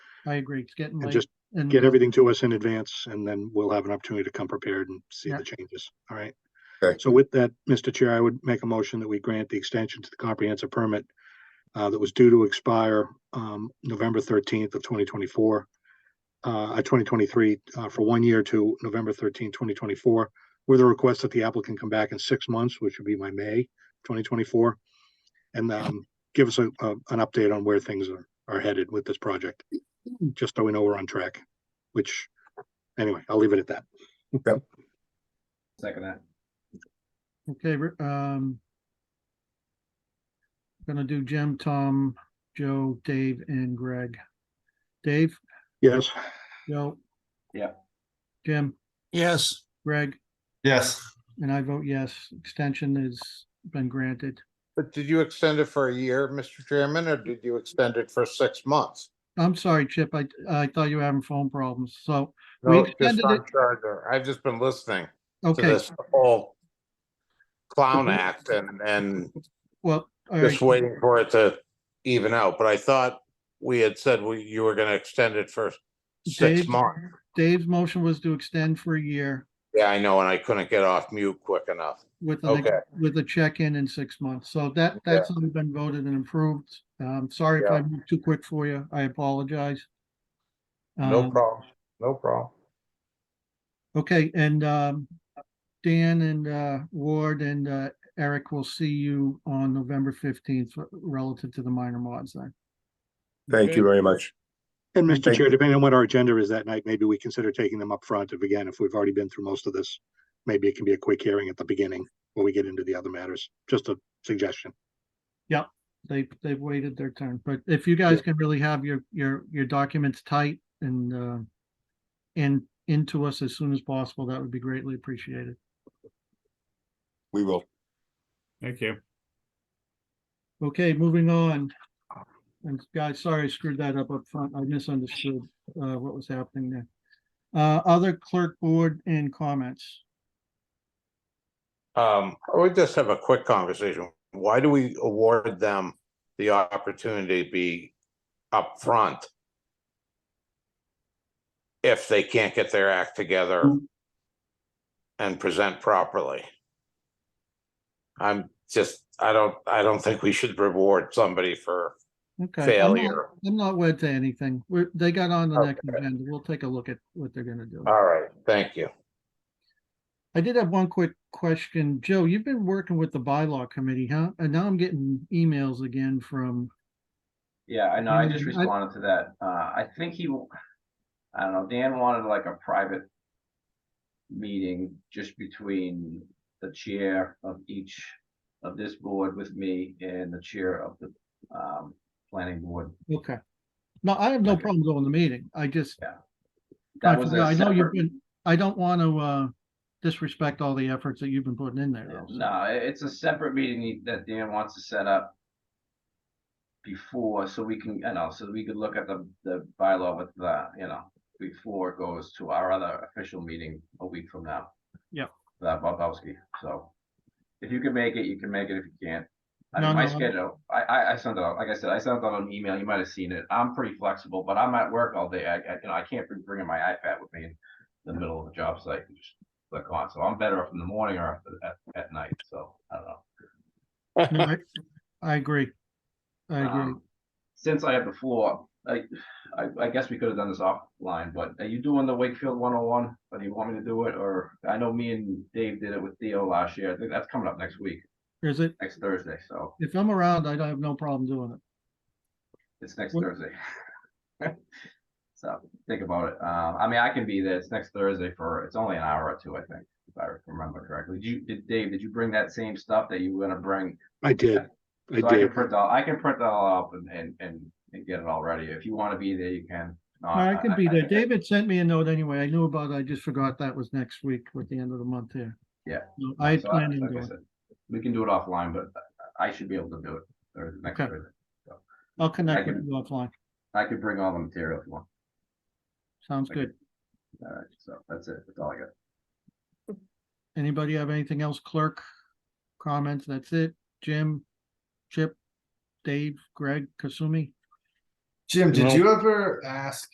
I agree. It's getting and late. just And get everything to us in advance, and then we'll have an opportunity to come prepared and see Yeah. the changes, all right? Okay. So with that, Mr. Chair, I would make a motion that we grant the extension to the comprehensive permit uh, that was due to expire, um, November thirteenth of twenty twenty-four, uh, twenty twenty-three, uh, for one year to November thirteenth, twenty twenty-four, with a request that the applicant come back in six months, which would be my May twenty twenty-four, and, um, give us a, a- an update on where things are, are headed with this project, just so we know we're on track which, anyway, I'll leave it at that. Second that. Okay, we're, um. Gonna do Jim, Tom, Joe, Dave, and Greg. Dave, Yes, Joe. Yeah. Jim, Yes. Greg, Yes. and I vote yes. Extension has been granted. But did you extend it for a year, Mr. Chairman, or did you extend it for six months? I'm sorry, Chip. I, I thought you were having phone problems. So, We No, just extended on it- charger. I've just been listening to okay, this whole clown act and, and well. all right. just waiting for it to even out. But I thought we had said we, you were gonna extend it for six Dave- months. Dave's motion was to extend for a year Yeah, I know, and I couldn't get off mute quick enough. with an, Okay, with a check-in in six months. So that, that's already been voted and approved. Um, sorry if I moved too quick for you. I apologize. no Um, problem, no problem. Okay, and, um, Dan and, uh, Ward and, uh, Eric will see you on November fifteenth relative to the minor mods then. Thank you very much. and Mr. Thank Chair, depending on what our agenda is that night, maybe we consider taking them up front. If again, if we've already been through most of this, maybe it can be a quick hearing at the beginning when we get into the other matters. Just a suggestion. They, they've waited their turn, but if you guys can really have your, your, your documents tight and, uh, and into us as soon as possible, that would be greatly appreciated. We will. Thank you. Okay, moving on. And guys, sorry, I screwed that up up front. I misunderstood uh what was happening there. Uh, other clerk board and comments. Um, I would just have a quick conversation. Why do we award them the opportunity to be upfront? If they can't get their act together and present properly? I'm just, I don't, I don't think we should reward somebody for Okay. I'm not- failure. I'm not wed to anything. We're, they got on the next Okay. Uh. agenda. We'll take a look at what they're gonna do. All right, thank you. I did have one quick question. Joe, you've been working with the bylaw committee, huh? And now I'm getting emails again from, Yeah, I know, I just Mhm, I- responded to that. Uh, I think he, w- I don't know, Dan wanted like a private meeting just between the chair of each of this board with me and the chair of the, um, planning board. okay. No, I have no Okay. problem going to the meeting. I just, I That was forgot. I a know you've separate, been, I don't want to, uh, disrespect all the efforts that you've been putting in there. though, so- no, i- it's a separate meeting that Dan wants to set up before, so we can, you know, so we could look at the, the bylaw with the, you know, before it goes to our other official meeting a week from now. Yep. That Bobowski, so if you can make it, you can make it if you can't. I No, mean, my no, I'm- schedule, I, I, I sent out, like I said, I sent out an email, you might have seen it. I'm pretty flexible, but I'm at work all day. I, I, you know, I can't be bringing my iPad with me in the middle of a job site and just click on. So I'm better up in the morning or up at, at night, so I don't know. No, I- I agree. I agree. Um, Since I have the floor, I, I, I guess we could have done this offline, but are you doing the Wakefield one oh one? Or do you want me to do it? Or I know me and Dave did it with Theo last year. I think that's coming up next week, Is it, next Thursday, so if I'm around, I don't have no problem doing it. it's next What- Thursday. So think about it. Um, I mean, I can be there. It's next Thursday for, it's only an hour or two, I think, if I remember correctly. Did you, did Dave, did you bring that same stuff that you were gonna bring? I did, I So I can did. print all, I can print that all up and, and, and and get it all ready. If you wanna be there, you can. If not, I can be there. I- David sent me a note anyway. I knew about it. I just forgot that was next week with the end of the month here. Yeah. So I had So I- planned on like I doing it. said, We can do it offline, but I I should be able to do it or next Okay. Thursday. I'll connect with can- you offline. I could bring all the material if you want. Sounds I can- good. All right, so that's it. That's all I got. Anybody have anything else? Clerk? Comments? That's it. Jim? Chip? Dave? Greg? Kasumi? Jim, did No. you ever ask